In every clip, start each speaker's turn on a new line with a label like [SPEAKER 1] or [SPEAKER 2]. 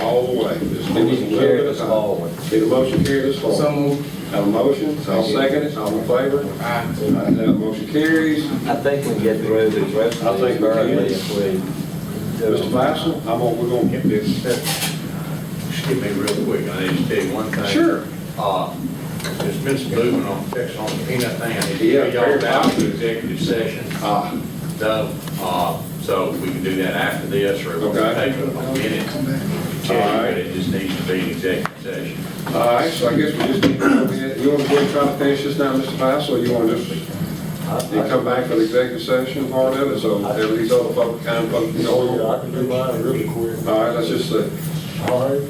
[SPEAKER 1] All the way.
[SPEAKER 2] We
[SPEAKER 1] Just give us a
[SPEAKER 2] need to
[SPEAKER 1] little
[SPEAKER 2] carry
[SPEAKER 1] bit of
[SPEAKER 2] this
[SPEAKER 1] time.
[SPEAKER 2] forward.
[SPEAKER 1] Need a motion carried this far?
[SPEAKER 3] So moved.
[SPEAKER 1] Have a motion, I'll second it, all in favor? Aye. That motion carries.
[SPEAKER 2] I think we can get through this rest
[SPEAKER 1] I
[SPEAKER 2] of
[SPEAKER 1] think
[SPEAKER 2] these
[SPEAKER 1] we can.
[SPEAKER 2] early if we do
[SPEAKER 1] Mr.
[SPEAKER 2] them.
[SPEAKER 1] Bison, I'm gonna, we're gonna get this.
[SPEAKER 4] Excuse me real quick, I need to tell you one thing.
[SPEAKER 1] Sure.
[SPEAKER 4] Uh, There's been some movement on, fix on the peanut thing, I need to
[SPEAKER 1] Yeah,
[SPEAKER 4] get y'all
[SPEAKER 1] fair.
[SPEAKER 4] out to executive session,
[SPEAKER 1] Ah,
[SPEAKER 4] though, uh, so we can do that after this, or it'll
[SPEAKER 1] Okay.
[SPEAKER 4] take a minute. to
[SPEAKER 1] All right.
[SPEAKER 4] But it just needs to be an executive session.
[SPEAKER 1] all right, so I guess we just need to, go ahead. you wanna go and try to finish this now, Mr. Bison, or you wanna just, you
[SPEAKER 2] I-
[SPEAKER 1] come back for the executive session part of it, so there are these other folk kind of, folk, you know,
[SPEAKER 5] Yeah, I can do mine really quick.
[SPEAKER 1] all right, let's just uh, see.
[SPEAKER 5] All right.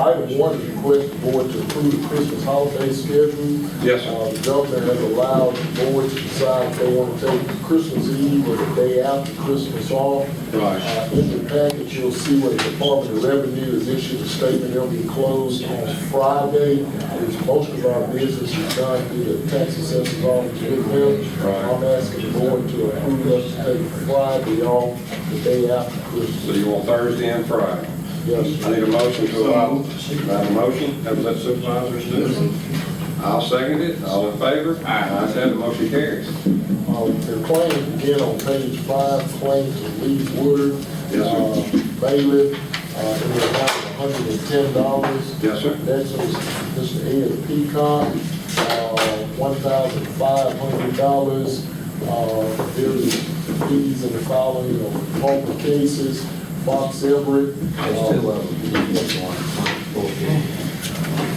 [SPEAKER 5] Item one, request the board to approve the Christmas holiday schedule.
[SPEAKER 1] Yes, sir.
[SPEAKER 5] Uh, The governor has allowed the board to decide if they want to take Christmas Eve or the day after Christmas off.
[SPEAKER 1] Right.
[SPEAKER 5] Uh, In the package, you'll see where the Department of Revenue has issued a statement, they'll be closed on Friday. It's most of our business is done through the tax assessor's office with them.
[SPEAKER 1] Right.
[SPEAKER 5] I'm asking the board to approve us to take Friday off, the day after
[SPEAKER 1] So
[SPEAKER 5] Christmas.
[SPEAKER 1] you want Thursday and Friday?
[SPEAKER 5] Yes, sir.
[SPEAKER 1] I need a motion to allow, I have a motion, have that supervisors do. I'll second it, all in favor? Aye. Ayes have it, motion carries.
[SPEAKER 5] Uh, The claim again on page five, claims of Lee Woodard.
[SPEAKER 1] Yes, sir.
[SPEAKER 5] uh, Bailiff, uh, in the amount of hundred and ten dollars.
[SPEAKER 1] Yes, sir.
[SPEAKER 5] Next is Mr. Ed Peacock, uh, one thousand five hundred dollars. There's fees in the following of multiple cases, Fox Everett. uh,
[SPEAKER 2] There's two of them. This one, fourteen.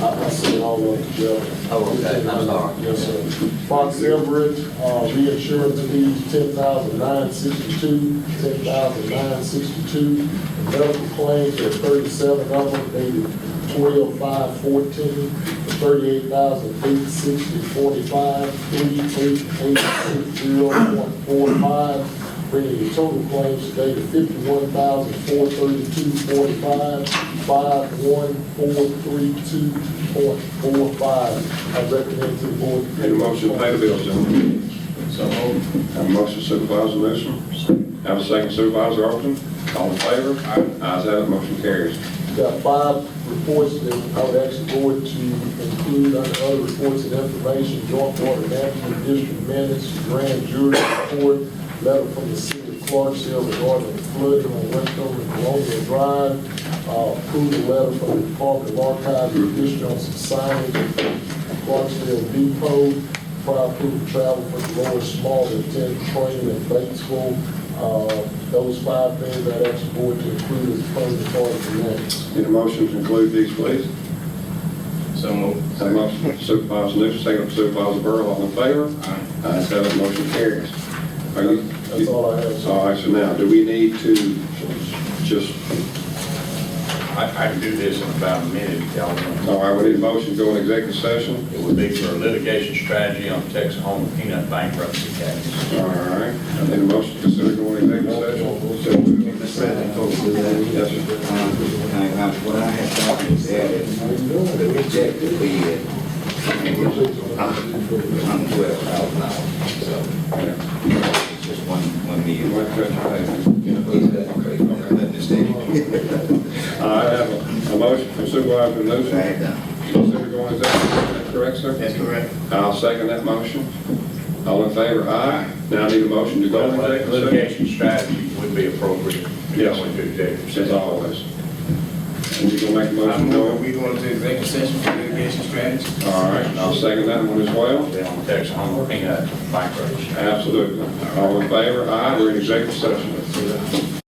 [SPEAKER 5] I, I see it all up together.
[SPEAKER 2] Oh, okay, I'm sorry.
[SPEAKER 5] Yes, sir. Fox Everett, uh, reinsurance fees, ten thousand nine sixty-two, ten thousand nine sixty-two. Medical claims, there are thirty-seven of them, dated twelve five fourteen, thirty-eight thousand eight sixty forty-five, eighty-eight eight six zero point four five bringing the total claims today to fifty-one thousand, four thirty-two, forty-five, five, one, four, three, two, point, four, five. I recommend to the board.
[SPEAKER 1] Need a motion to pay the bills, gentlemen. Have a motion supervisor Newsom, have a second supervisor Overton, all in favor? Aye. Ayes have it, motion carries.
[SPEAKER 5] Got five reports that I would ask the board to include under other reports and information, joint water management district minutes, grand jury report, letter from the city of Clarksville regarding the flooding on Westover and Columbia Drive, uh, approval letter from the Department of Archives and District on some signage at Clarksville Depot, prior approval travel for Lawrence Small to attend training in Batesville. Uh, Those five things I asked the board to include as part of the part of the minutes.
[SPEAKER 1] Need a motion to include these, please?
[SPEAKER 3] So moved.
[SPEAKER 1] Have a motion supervisor Newsom, second supervisor Burl, all in favor? Aye. Ayes have it, motion carries. Are you?
[SPEAKER 5] That's all I have, sir.
[SPEAKER 1] All right, so now, do we need to just,
[SPEAKER 4] I, I can do this in about a minute, if y'all want.
[SPEAKER 1] all right, we need a motion to go in executive session?
[SPEAKER 4] It would be for litigation strategy on Texas Home Peanut bankruptcy case.
[SPEAKER 1] All right, I need a motion to consider going into executive session.
[SPEAKER 6] Mr. President, folks, do that.
[SPEAKER 1] Yes, sir.
[SPEAKER 6] Uh, uh, What I had thought is that the rejected bid on twelve thousand dollars, so it's just one, one
[SPEAKER 1] You
[SPEAKER 6] meal.
[SPEAKER 1] want to address that? I have a- a motion from Supervisor Newsom.
[SPEAKER 6] I had done.
[SPEAKER 1] Consider going into executive, is that correct, sir?
[SPEAKER 6] That's correct.
[SPEAKER 1] I'll second that motion. All in favor, aye. Now I need a motion to go into executive session.
[SPEAKER 4] Litigation strategy would be appropriate. if
[SPEAKER 1] Yes.
[SPEAKER 4] we went to executive
[SPEAKER 1] As
[SPEAKER 4] session.
[SPEAKER 1] always. And you gonna make a motion, Joel?
[SPEAKER 3] We going to executive session for litigation strategy?
[SPEAKER 1] All right, I'll second that one as well.
[SPEAKER 4] They don't tax on peanut bankruptcy.
[SPEAKER 1] Absolutely. All in favor, aye, we're in executive session.